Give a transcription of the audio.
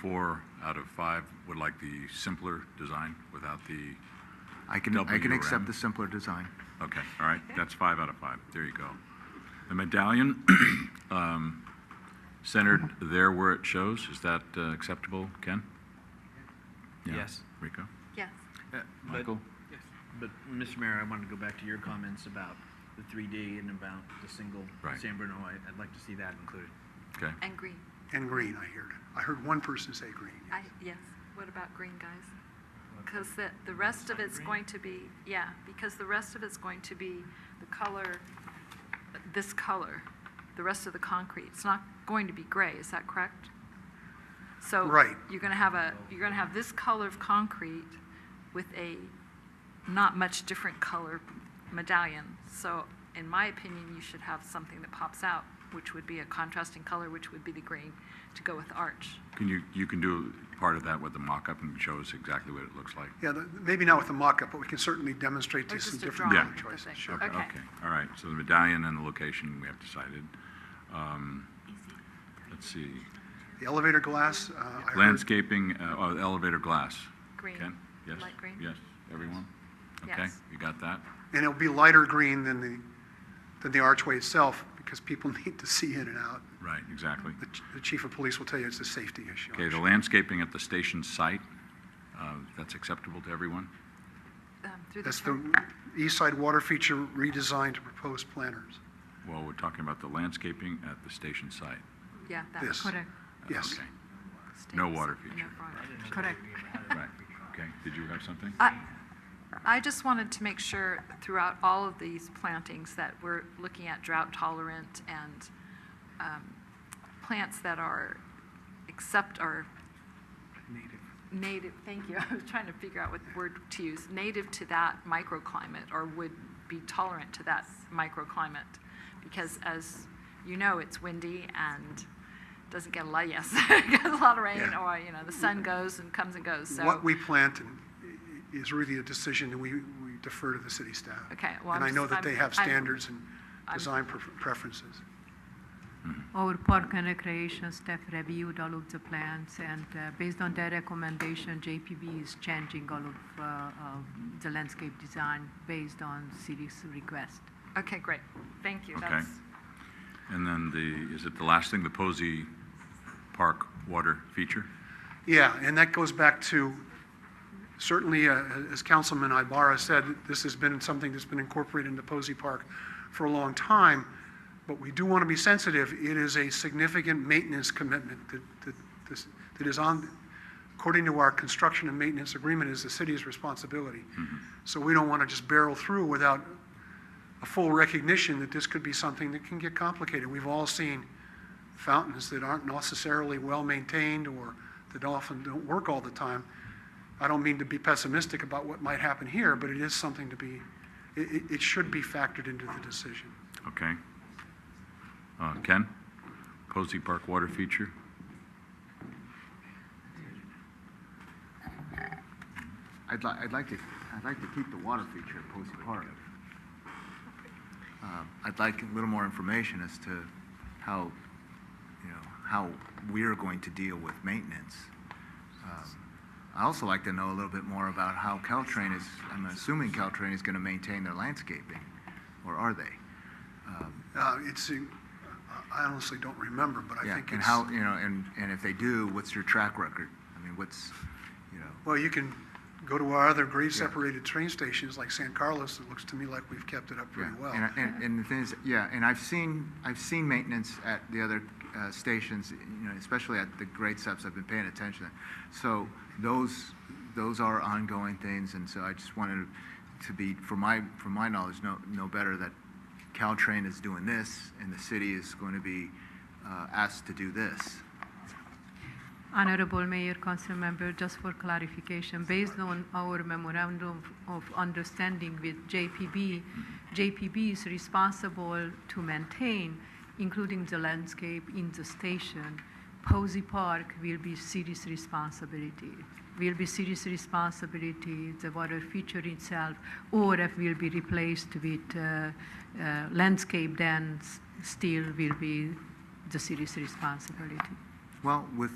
four out of five would like the simpler design without the, I can, I can WRM. accept the simpler design. okay, all right, that's five out of five, there you go. The medallion, um, centered there where it shows, is that uh, acceptable, Ken? Yeah. Yes. Rico? Yes. Uh, but- Michael? But, Mr. Mayor, I wanted to go back to your comments about the 3D and about the single Right. San Bruno. I- I'd like to see that included. Okay, And green. And green, I heard. I heard one person say green. I, yes. What about green, guys? Because the, the rest of it's going to be, yeah, because the rest of it's going to be the color, this color, the rest of the concrete. It's not going to be gray, is that correct? So. Right. You're gonna have a, you're gonna have this color of concrete with a not much different color medallion. So in my opinion, you should have something that pops out, which would be a contrasting color, which would be the green, to go with the arch. can you, you can do part of that with the mock-up and show us exactly what it looks like? Yeah, the- maybe not with the mock-up, but we can certainly demonstrate Or to some just a different drawing color of the choices. thing. Sure. Okay, Okay. okay. all right, so the medallion and the location we have decided. Um, Let's see, The elevator glass, uh, I heard- landscaping, uh, oh, elevator glass. Green. Ken? Yes? Light green? Yes, everyone? Okay, Yes. you got that? And it'll be lighter green than the, than the archway itself, because people need to see in and out. Right, exactly. The ch- The chief of police will tell you it's a safety issue. Okay, the actually. landscaping at the station site, uh, that's acceptable to everyone? Um, Through the That's chair. the east side water feature redesigned to proposed planners. Well, we're talking about the landscaping at the station site. Uh, Yeah, that. This. correct. Yes. Okay, States water and no feature. water. Correct. Right, okay. Did you have something? I, I just wanted to make sure throughout all of these plantings that we're looking at drought tolerant and um, plants that are, except are native, thank you, I was trying to figure out what word to use, native to that microclimate or would be tolerant to that microclimate. Because as you know, it's windy and doesn't get a lot, yes, gets a lot of rain Yeah. or, you know, the sun goes and comes and goes, so. What we plant is really a decision, and we we defer to the city staff. Okay, well, I'm And I know just- that they I'm- have I'm- standards and I'm- design pre- preferences. Our park and recreation staff reviewed all of the plans, and uh, based on their recommendation, JPB is changing all of uh, uh, the landscape design based on city's request. Okay, great. Thank you. Okay. That's, And then the, is it the last thing, the Posey Park water feature? Yeah, and that goes back to, certainly, uh, as Councilman Ibarra said, this has been something that's been incorporated into Posey Park for a long time, but we do want to be sensitive. It is a significant maintenance commitment that, that, this- that is on, according to our construction and maintenance agreement, is the city's responsibility. So we don't want to just barrel through without a full recognition that this could be something that can get complicated. We've all seen fountains that aren't necessarily well-maintained or that often don't work all the time. I don't mean to be pessimistic about what might happen here, but it is something to be, it, it- it should be factored into the decision. Okay. Uh, Ken, Posey Park water feature? I'd like, I'd like to, I'd like to keep the water feature at Posey Park. Uh, I'd like a little more information as to how, you know, how we're going to deal with maintenance. Um, I also like to know a little bit more about how Caltrain is, I'm assuming Caltrain is going to maintain their landscaping, or are they? Uh, it's, uh, I honestly don't remember, but I Yeah, think And it's, how, you know, and, and if they do, what's your track record? I mean, what's, you know? well, you can go to our other grade Yeah. separated train stations like San Carlos. It looks to me like we've kept it up Yeah, pretty well. And, and, and the thing is, yeah, and I've seen, I've seen maintenance at the other uh, stations, you know, especially at the grade steps, I've been paying attention. So those, those are ongoing things, and so I just wanted to be, from my, from my knowledge, know, know better that Caltrain is doing this, and the city is going to be uh, asked to do this. Honorable Mayor, Council Member, just for clarification, based on our memorandum of understanding with JPB, JPB is responsible to maintain, including the landscape in the station. Posey Park will be city's responsibility. Will be city's responsibility, the water feature itself, or if will be replaced with uh, uh, landscape, then s- still will be the city's responsibility. Well, with,